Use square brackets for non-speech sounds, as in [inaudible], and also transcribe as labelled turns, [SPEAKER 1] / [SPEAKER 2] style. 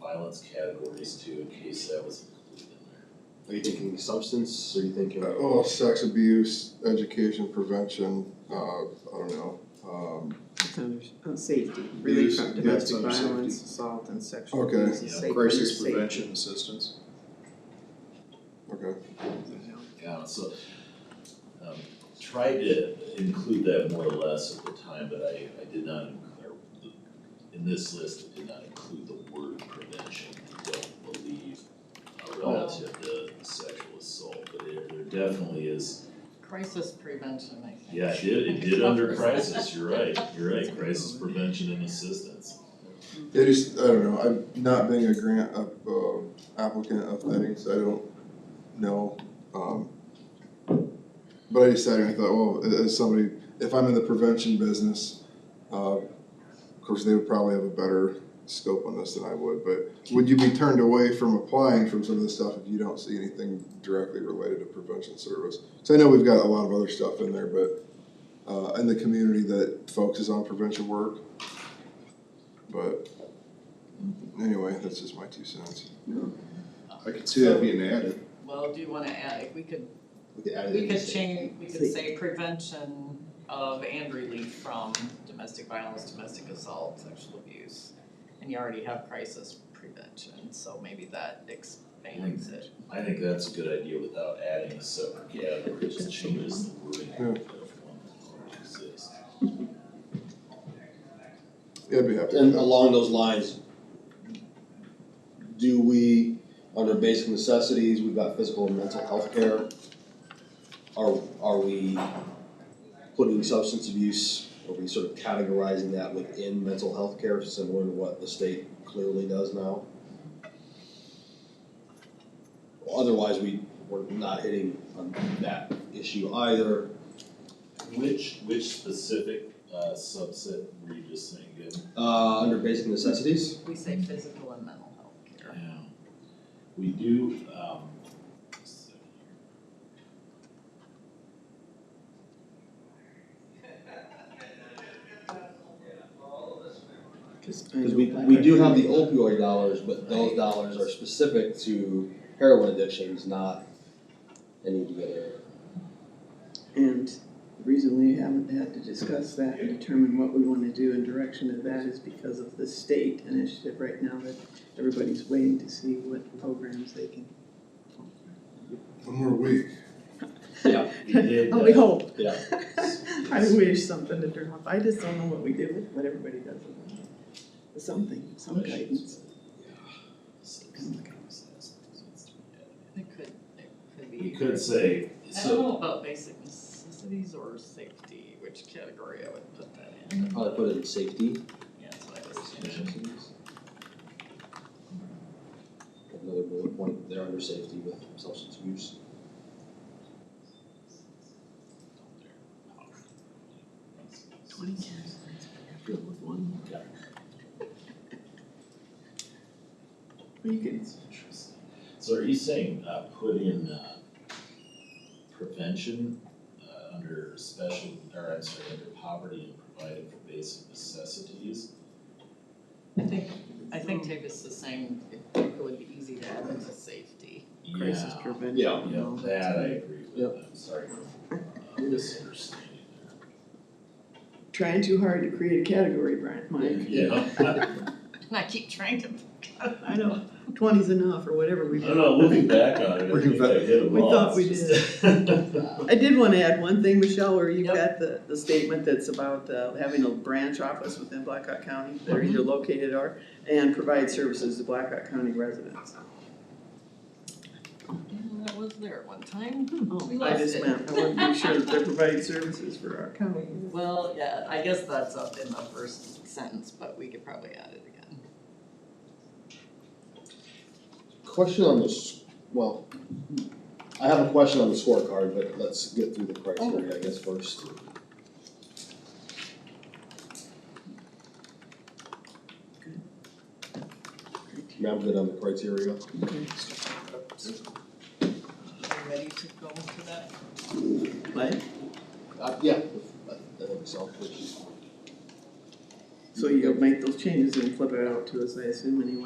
[SPEAKER 1] violence categories too, in case that was included in there.
[SPEAKER 2] Are you thinking substance, or are you thinking?
[SPEAKER 3] Uh, Well, sex abuse, education, prevention, uh, I don't know, um,
[SPEAKER 4] It's under, on safety, relief from
[SPEAKER 3] Abuse, yeah,
[SPEAKER 2] it's
[SPEAKER 4] domestic
[SPEAKER 2] under safety.
[SPEAKER 4] violence, assault and sexual
[SPEAKER 3] Okay.
[SPEAKER 4] abuse, and
[SPEAKER 1] Yeah,
[SPEAKER 4] safe- under
[SPEAKER 2] Crisis
[SPEAKER 4] safety.
[SPEAKER 2] prevention assistance.
[SPEAKER 3] okay.
[SPEAKER 1] Yeah, so, um, tried to include that more or less at the time, but I, I did not, inc- or the- in this list, I did not include the word prevention, I don't believe, uh, relative to sexual assault, but there, there definitely is,
[SPEAKER 5] Crisis prevention, I think.
[SPEAKER 1] yeah, it did, it
[SPEAKER 5] [laughs]
[SPEAKER 1] did under crisis, you're right, you're right, crisis prevention and assistance.
[SPEAKER 3] It is, I don't know, I'm not being a grant, app- um, applicant of things, I don't know, um. But I decided, I thought, well, a- as somebody, if I'm in the prevention business, uh, of course, they would probably have a better scope on this than I would, but. Would you be turned away from applying from some of this stuff if you don't see anything directly related to prevention service? So I know we've got a lot of other stuff in there, but, uh, in the community that focuses on prevention work. But anyway, that's just my two cents.
[SPEAKER 2] I could see that being added.
[SPEAKER 5] Well, do you wanna add, if we could,
[SPEAKER 2] We could add it
[SPEAKER 5] we
[SPEAKER 2] in
[SPEAKER 5] could
[SPEAKER 2] the-
[SPEAKER 5] change, we could say prevention of and relief from domestic violence, domestic assault, sexual abuse. And you already have crisis prevention, so maybe that expands it.
[SPEAKER 1] I think that's a good idea without adding a separate category, just changes the wording of
[SPEAKER 3] Yeah.
[SPEAKER 1] one that already exists.
[SPEAKER 3] Yeah, I'd be happy. with
[SPEAKER 6] And
[SPEAKER 3] that.
[SPEAKER 6] along those lines, do we, under basic necessities, we've got physical and mental health care. Are, are we putting substance abuse, are we sort of categorizing that within mental health care, similar to what the state clearly does now? Otherwise, we, we're not hitting on that issue either.
[SPEAKER 1] Which, which specific uh, subset were you just saying, good?
[SPEAKER 6] Uh, under basic necessities,
[SPEAKER 5] We say physical and mental health care.
[SPEAKER 1] Yeah. We do, um, just a second
[SPEAKER 6] Because we, we do have the opioid dollars, but those dollars are specific to heroin addictions, not any of the other.
[SPEAKER 4] And the reason we haven't had to discuss that and determine what we wanna do in direction of that is because of the state initiative right now that everybody's waiting to see what programs they can.
[SPEAKER 3] One more week.
[SPEAKER 6] Yeah.
[SPEAKER 1] here. We did,
[SPEAKER 4] [laughs] Oh, we
[SPEAKER 1] uh,
[SPEAKER 4] hope.
[SPEAKER 6] Yeah.
[SPEAKER 4] I wish something to turn off, I just don't know what we do with, what everybody does with it. Something, some guidance.
[SPEAKER 5] It could, it could be.
[SPEAKER 1] We could say,
[SPEAKER 5] I don't
[SPEAKER 1] so,
[SPEAKER 5] know about basic necessities or safety, which category I would put that in.
[SPEAKER 6] Probably put it in safety.
[SPEAKER 5] Yeah, that's what I was thinking.
[SPEAKER 6] Another bullet point there under safety with substance abuse.
[SPEAKER 4] Twenty years, after with one. You can,
[SPEAKER 1] it's interesting. [laughs] So are you saying, uh, put in, uh, prevention, uh, under special, or I'm sorry, under poverty and providing for basic necessities?
[SPEAKER 5] I think, I think Tavis is saying it it would be easy to add into safety. [laughs]
[SPEAKER 4] crisis
[SPEAKER 1] Yeah.
[SPEAKER 4] prevention.
[SPEAKER 6] Yeah.
[SPEAKER 4] and
[SPEAKER 1] Yeah,
[SPEAKER 4] all
[SPEAKER 1] that I agree
[SPEAKER 6] Yep.
[SPEAKER 1] with, I'm sorry for uh, misunderstanding
[SPEAKER 4] Trying too hard to create a category, Brian,
[SPEAKER 1] there.
[SPEAKER 4] Mike.
[SPEAKER 1] Yeah. [laughs]
[SPEAKER 5] And I keep trying to, [laughs]
[SPEAKER 4] I know, twenty's enough or whatever
[SPEAKER 1] I
[SPEAKER 4] we've.
[SPEAKER 1] don't know,
[SPEAKER 4] [laughs]
[SPEAKER 1] looking back on it, I
[SPEAKER 3] Looking
[SPEAKER 1] think I hit them
[SPEAKER 4] We
[SPEAKER 1] all.
[SPEAKER 4] thought
[SPEAKER 1] [laughs]
[SPEAKER 4] we
[SPEAKER 1] did.
[SPEAKER 4] I did wanna add one thing, Michelle, where you've
[SPEAKER 5] Yep.
[SPEAKER 4] got the, the statement that's about, uh, having a branch office within Blackhawk County that
[SPEAKER 5] Mm-hmm.
[SPEAKER 4] are either located or, and provide services to Blackhawk County residents.
[SPEAKER 5] Yeah, that was there at one time. Oh, We
[SPEAKER 4] I
[SPEAKER 5] lost
[SPEAKER 4] just
[SPEAKER 5] it.
[SPEAKER 4] meant, I wanted to be sure that they're providing services for our
[SPEAKER 5] [laughs]
[SPEAKER 4] county.
[SPEAKER 5] Well, yeah, I guess that's up in the first sentence, but we could probably add it again.
[SPEAKER 6] Question on this, well, I have a question on the scorecard, but let's get through the criteria, I guess, first. Yeah, I'm good on the criteria.
[SPEAKER 5] Are you ready to go into that?
[SPEAKER 4] What?
[SPEAKER 6] Uh, yeah, I I think so, which is
[SPEAKER 4] So you'll make those changes and flip it out to us, I assume, anyway.